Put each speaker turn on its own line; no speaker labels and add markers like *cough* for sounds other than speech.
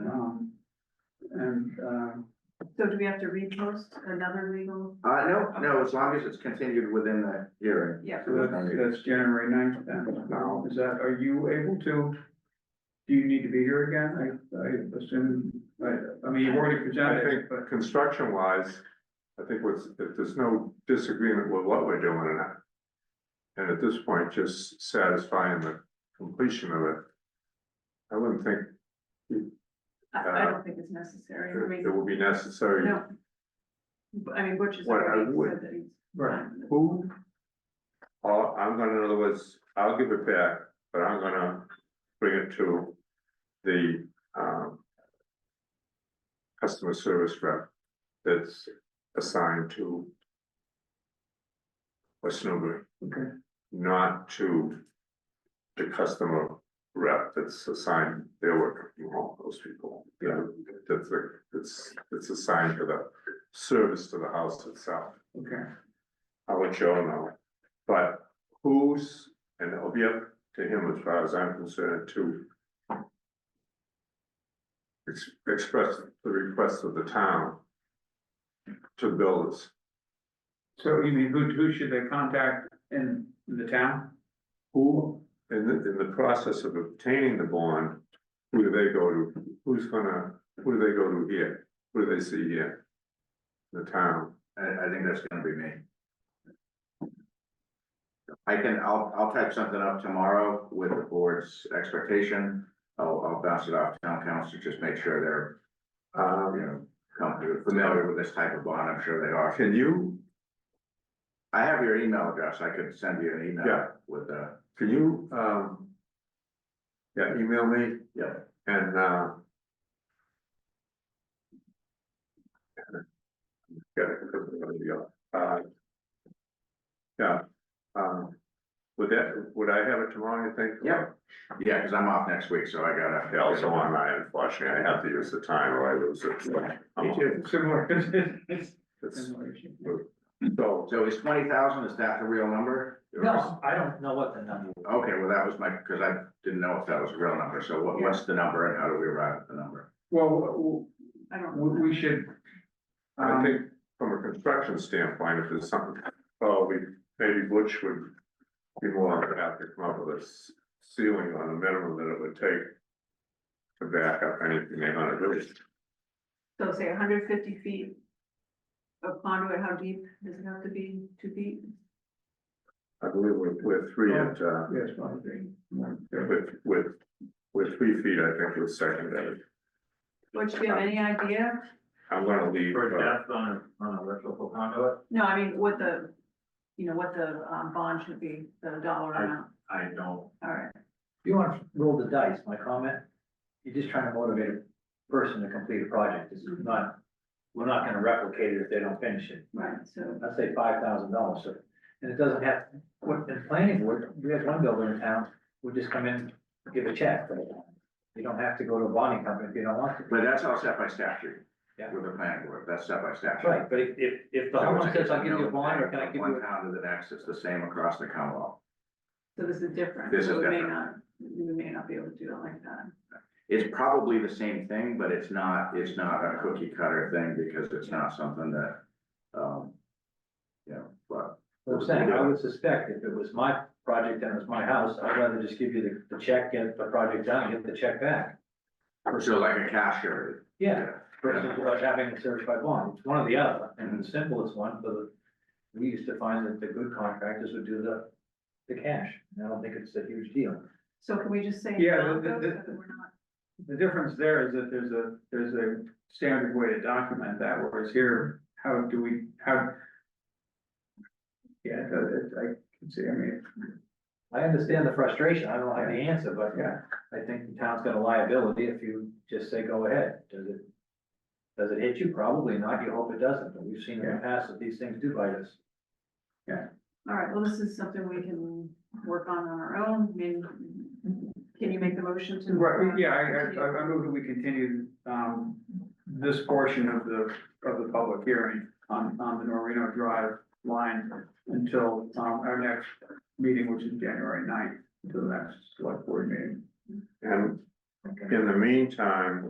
Um,
So do we have to repost another legal?
Uh, no, no, as long as it's continued within the hearing.
Yeah.
So there's no need.
That's January ninth then. Now, is that, are you able to? Do you need to be here again? I, I assume, I, I mean, you've already
I
presented,
think,
but
construction wise, I think what's, if there's no disagreement with what we're doing or not. And at this point, just satisfying the completion of it. I wouldn't think
I, I don't think it's necessary, I
it it
mean,
would be necessary.
no. But, I mean, Butch has
What I
already
would-
said that he's. um,
Right.
Who? All, I'm gonna, in other words, I'll give it back, but I'm gonna bring it to the, um. Customer service rep that's assigned to. West Newbury,
okay,
not to the customer rep that's assigned, they're working from home, those people.
Yeah.
That's, a- that's, that's assigned to the service to the house itself.
okay.
I'll let Joe know, but who's, and it'll be up to him as far as I'm concerned to. ex- Express the request of the town. To build this,
So you mean, who, who should they contact in, in the town?
who, in the, in the process of obtaining the bond, who do they go to, who's gonna, who do they go to here? Who do they see here? The town,
I, I think that's gonna be me. I can, I'll, I'll type something up tomorrow with the board's expectation. I'll, I'll bounce it off town council, just make sure they're, uh, you
um,
know, comfortable, familiar with this type of bond, I'm sure they are.
can you,
I have your email address, I could send you an email
Yeah.
with uh, the,
can you, um. Yeah, email me
yeah,
And, uh. Yeah, uh. Yeah, um, would that, would I have it tomorrow, you think?
Yeah. yeah, cause I'm off next week, so I gotta.
Yeah, also on, I unfortunately, I have to use the time or I lose it.
Me too.
Similar. *laughs*
It's-
Similar issue.
So,
So is twenty thousand, is that the real number?
No, I don't know what the number,
Okay, well, that was my, cause I didn't know if that was a real number, so what, what's the number and how do we arrive at the number?
Well,
I don't. know.
we, we should.
I
um,
think from a construction standpoint, if there's something, oh, we, maybe Butch would be more than happy to come up with a s- ceiling on the minimum that it would take to back up anything they're gonna do.
So say hundred fifty feet of conduit, how deep does it have to be, two feet?
I believe we're, we're three at, uh,
um, Yes, well, I agree.
with, with, with three feet, I think was secondary.
Butch, do you have any idea?
I'm gonna leave,
for
uh,
depth on a, on a electrical conduit,
No, I mean, what the, you know, what the, um, bond should be, the dollar
I-
amount,
I don't.
all right.
You want to roll the dice, my comment, you're just trying to motivate a person to complete a project, this is not, we're not gonna replicate it if they don't finish it.
Right, so,
I'd say five thousand dollars, so, and it doesn't have, what, in planning board, we have one builder in town, we just come in, give a check. You don't have to go to a bonding company if you don't want to.
But that's all set by statute.
Yeah.
With the planning board, that's set by statute.
Right, but if, if, if the
So
homeowner
it's-
says, I'll give you a bond, or can I give
One
you,
town to the next, it's the same across the Commonwealth.
so this is different.
This is
So we may
different.
not, we may not be able to do it like that.
It's probably the same thing, but it's not, it's not a cookie cutter thing because it's not something that, um, you know, but
a- I'm saying, I would suspect if it was my project and it was my house, I'd rather just give you the, the check, get the project done, get the check back.
so like a cash or.
Yeah, versus without having a certified bond, it's one or the other, and the simplest one, but we used to find that the good contractors would do the, the cash, and I don't think it's a huge deal.
So can we just say?
Yeah,
no,
the- the-
though, so that we're not-
The difference there is that there's a, there's a standard way to document that, whereas here, how do we, how? Yeah, it- it- I can see, I mean,
I understand the frustration, I don't have the answer, but
yeah,
I think the town's got a liability if you just say, go ahead, does it? Does it hit you? Probably not, you hope it doesn't, but we've seen in the past that these things do bite us.
All right, well, this is something we can work on on our own, I mean, can you make the motion to?
right, yeah, I, I, I move that we continue, um, this portion of the, of the public hearing on, on the Norino Drive line until, um, our next meeting, which is January 9th, until the next select board meeting.
and
Okay.
in the meantime,